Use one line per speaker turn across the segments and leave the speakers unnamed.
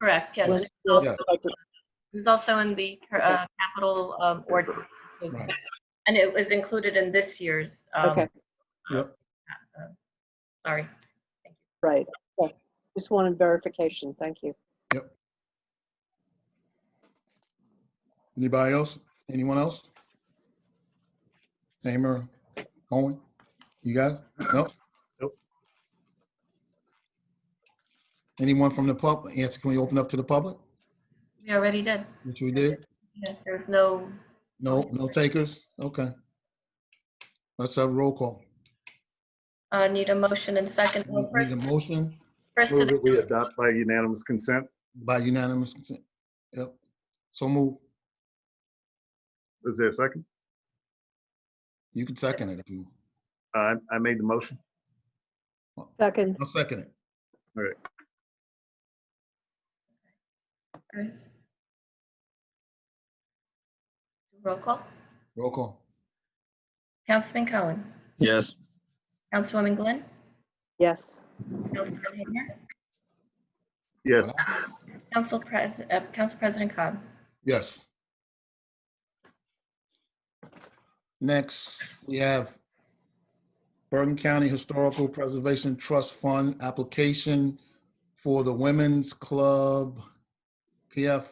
Correct, yes. and
Was-
It was
Yeah.
also- it was also in the uh, capital um, ordinance. It was-
Right.
And it was included in this year's. um,
Okay.
Yep.
uh, Sorry.
Right. Okay. Just wanted verification. Thank you.
Anybody else? Anyone else? Namer, Owen, you guys? No?
Nope.
Anyone from the public? Answer, can we open up to the public?
We already did.
Which we did?
Yeah, There was no,
No, no takers? Okay. Let's have a roll call.
uh, need a motion and second. Well,
Need
First,
a motion
first to
Move that we
the,
adopt by unanimous consent.
by unanimous consent. Yep. So move.
Is there a second?
You can second it if you,
I, I made the motion.
Second,
I'll second it.
roll call.
Roll call.
Councilman Cohen.
Yes.
Councilwoman Glenn.
yes.
Councilman Hamer.
Yes.
Council Pres, uh, Council President Cobb.
Yes. Next, we have Bergen County Historical Preservation Trust Fund application for the Women's Club PF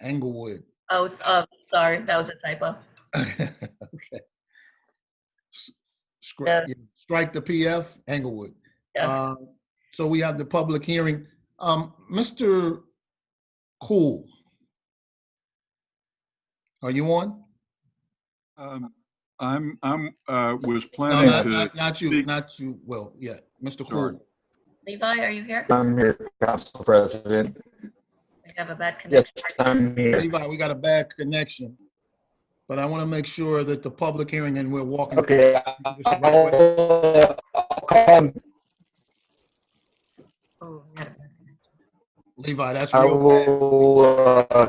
Englewood.
Oh, it's up. Sorry, that was a typo.
Okay. S- scri- yeah, Strike the PF Englewood.
Yeah.
Uh, So we have the public hearing. Um, Mr. Cool. Are you on?
Um, I'm, I'm, uh, was
No,
planning
not,
to,
not, not you,
speak.
not you, well, yeah, Mr.
Sorry.
Cool.
Levi, are you here?
I'm here, Council President.
We have a bad connection.
Yes, I'm here.
Levi, we got a bad connection. But I want to make sure that the public hearing and we're walking.
Okay. I'll- I'll call-
Oh, we had a bad connection.
Levi, that's
I
real bad.
will uh,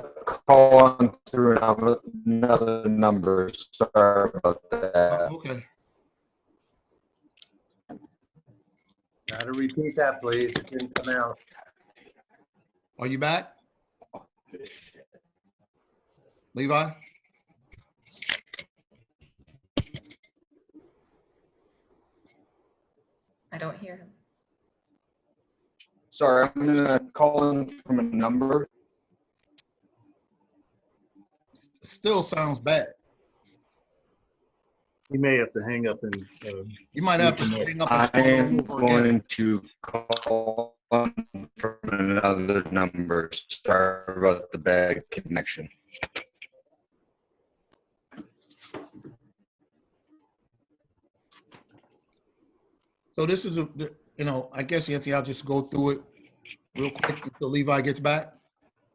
call on through another- another number. Sorry about that.
Oh, Okay,
Now to repeat that, please. It didn't come out.
are you back? Levi?
I don't hear him.
Sorry, I'm gonna call in from a number.
Still sounds bad.
You may have to hang up and, uh,
You might have to hang up and
I
start
am
over again.
going to call on from another number. Sorry about the bad connection.
So this is, a you know, I guess, Yancy, I'll just go through it real quick until Levi gets back.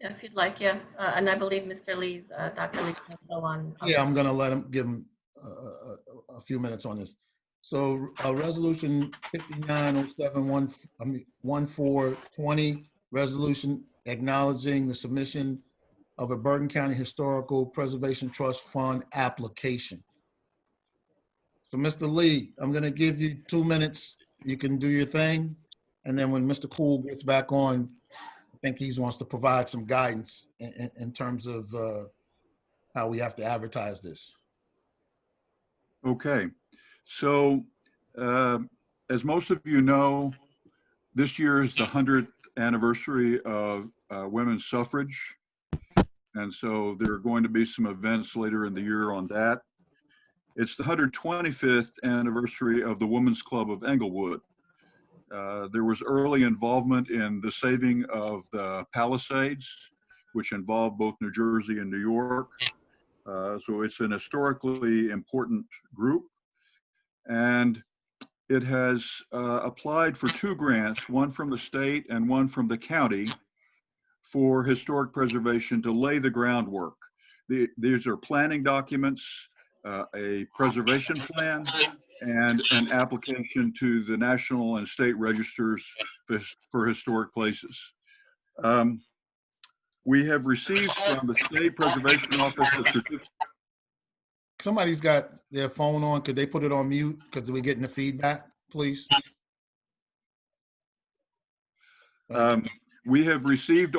Yeah, If you'd like, yeah. Uh, And I believe Mr. Lee's, uh, Dr. Lee's also on. on-
Yeah, I'm gonna let him, give him a, a, a- a few minutes on this. So, uh, resolution fifty-nine oh seven one, I mean, one four twenty, resolution acknowledging the submission of a Bergen County Historical Preservation Trust Fund application. So, Mr. Lee, I'm gonna give you two minutes. You can do your thing. And then when Mr. Cool gets back on, I think he wants to provide some guidance in, in, in terms of, uh, how we have to advertise this.
okay. So, uh, as most of you know, this year is the 100th anniversary of uh, women's suffrage. And so there are going to be some events later in the year on that. It's the 125th anniversary of the Women's Club of Englewood. Uh, There was early involvement in the saving of the Palisades, which involved both New Jersey and New York. Uh, So it's an historically important group. And it has uh, applied for two grants, one from the state and one from the county for historic preservation to lay the groundwork. The- These are planning documents, uh, a preservation plan, and an application to the national and state registers for his- for historic places. Um, we have received from the State Preservation Office a certificate.
Somebody's got their phone on. Could they put it on mute? Because we're getting the feedback, please.
Uh, um, We have received